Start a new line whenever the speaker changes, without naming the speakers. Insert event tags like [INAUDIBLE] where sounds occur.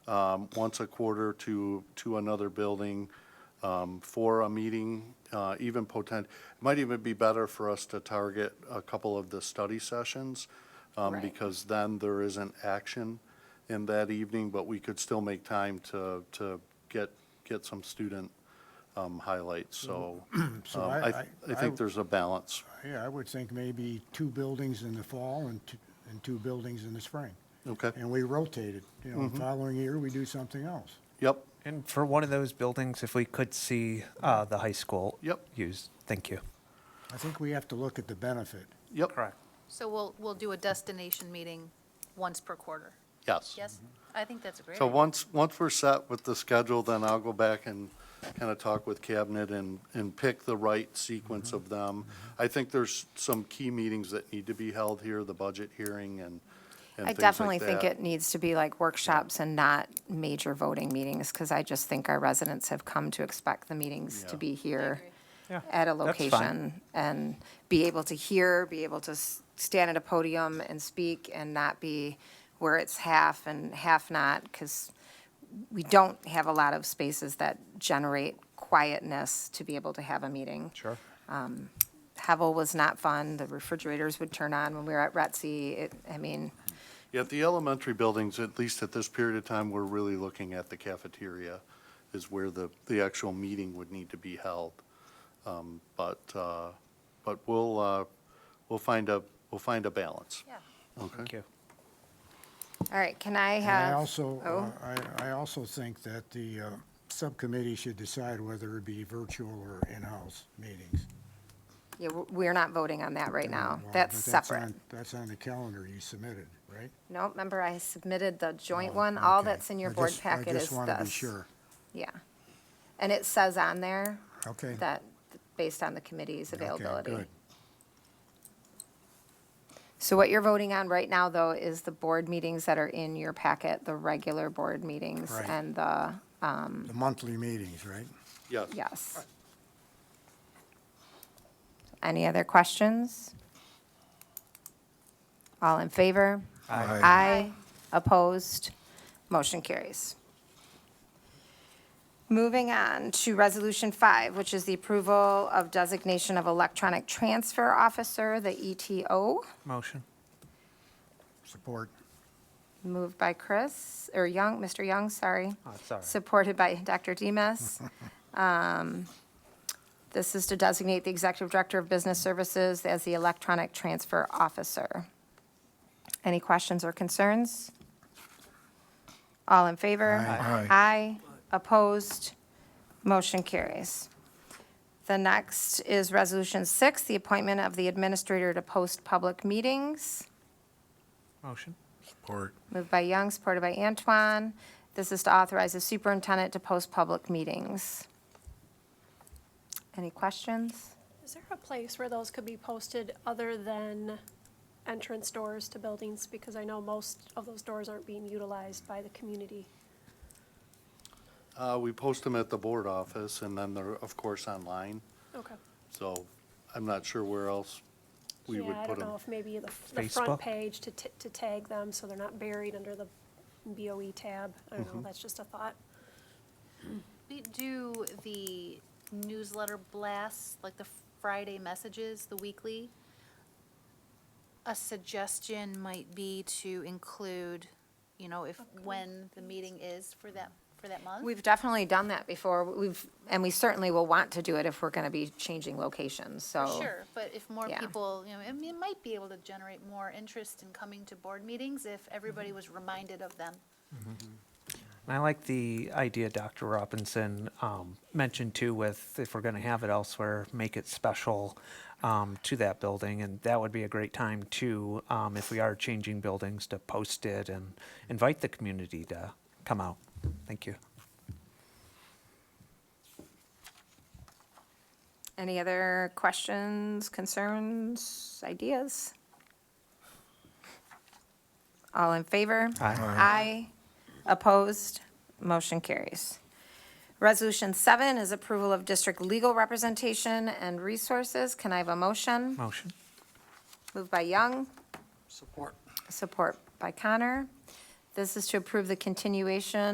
um, once a quarter to, to another building um, for a meeting, uh, even potent, it might even be better for us to target a couple of the study sessions, um,
Right.
because then there isn't action in that evening, but we could still make time to, to get, get some student um, highlights, so um,
[CLEARS THROAT] So I-
I,
I-
I
I-
think there's a balance.
Yeah, I would think maybe two buildings in the fall and two, and two buildings in the spring.
Okay,
And we rotate it, you know, the following year, we do something else.
yep,
And for one of those buildings, if we could see uh, the high school
Yep.
used, thank you.
I think we have to look at the benefit.
yep,
Correct.
So we'll, we'll do a destination meeting once per quarter.
yes.
Yes? I think that's a great.
So
idea.
once, once we're set with the schedule, then I'll go back and kind of talk with cabinet and, and pick the right sequence
Mm-hmm.
of them. I think there's some key meetings that need to be held here, the budget hearing and, and
I
things like
definitely think
that.
it needs to be like workshops and not major voting meetings, because I just think our residents have come to expect the meetings
Yeah.
to be here
agree.
Yeah,
at a
that's fine.
location and be able to hear, be able to s- stand at a podium and speak and not be where it's half and half not, because we don't have a lot of spaces that generate quietness to be able to have a meeting.
Sure.
Hevel was not fun. The refrigerators would turn on when we were at Retzi. It, I mean,
Yeah, the elementary buildings, at least at this period of time, we're really looking at the cafeteria is where the, the actual meeting would need to be held. Um, But, uh, but we'll, uh, we'll find a, we'll find a balance.
Yeah.
Okay.
Thank you.
All right, can I
And I
have?
also,
Oh,
uh, I, I also think that the uh, subcommittee should decide whether it be virtual or in-house meetings.
yeah, w- we're not voting on that right now.
Well,
That's
but
separate.
on- That's on the calendar you submitted, right?
No, remember, I submitted the joint
Oh,
one. All
okay.
that's in your
I
board
just-
packet
I
is
just
this.
want to be sure.
Yeah. And it says on there
Okay.
that, based on the committee's
Okay,
availability.
good.
So what you're voting on right now, though, is the board meetings that are in your packet, the regular board meetings
Right.
and the,
The monthly meetings, right?
Yes.
yes. Any other questions? All in favor? Aye. Opposed? Motion carries. Moving on to Resolution 5, which is the approval of designation of electronic transfer officer, the E ETO.
Motion.
Support.
Moved by Chris, or Young, Mr. Young, sorry.
Oh, it's all right.
Supported by [LAUGHS] Dr. Demas. Um, This is to designate the Executive Director of Business Services as the electronic transfer officer. Any questions or concerns? All in favor?
Aye. Aye.
Aye. Opposed? Motion carries. The next is Resolution 6, the appointment of the Administrator to post public meetings.
Motion.
Support.
Moved by Young, supported by Antoine. This is to authorize the superintendent to post public meetings. Any questions?
Is there a place where those could be posted other than entrance doors to buildings? Because I know most of those doors aren't being utilized by the community.
Uh, we post them at the board office and then they're, of course, online.
Okay.
So I'm not sure where else we would
Yeah,
put
I don't
them.
know if maybe the, the
Facebook?
front page to, t- to tag them so they're not buried under the BOE tab. I don't
Mm-hmm.
know, that's just a thought.
We do the newsletter blasts, like the Friday messages, the weekly. A suggestion might be to include, you know, if, when the meeting is for that, for that month.
We've definitely done that before. We've, and we certainly will want to do it if we're going to be changing locations, so.
Sure, but if more
Yeah.
people, you know, I mean, it might be able to generate more interest in coming to board meetings if everybody was reminded of them.
And I like the idea Dr. Robinson um, mentioned too with if we're going to have it elsewhere, make it special um, to that building. And that would be a great time too, um, if we are changing buildings, to post it and invite the community to come out. Thank you.
Any other questions, concerns, ideas? All in favor?
Aye.
Aye. Opposed? Motion carries. Resolution seven is approval of district legal representation and resources. Can I have a motion?
Motion.
Moved by Young. Support. Support by Connor. This is to approve the continuation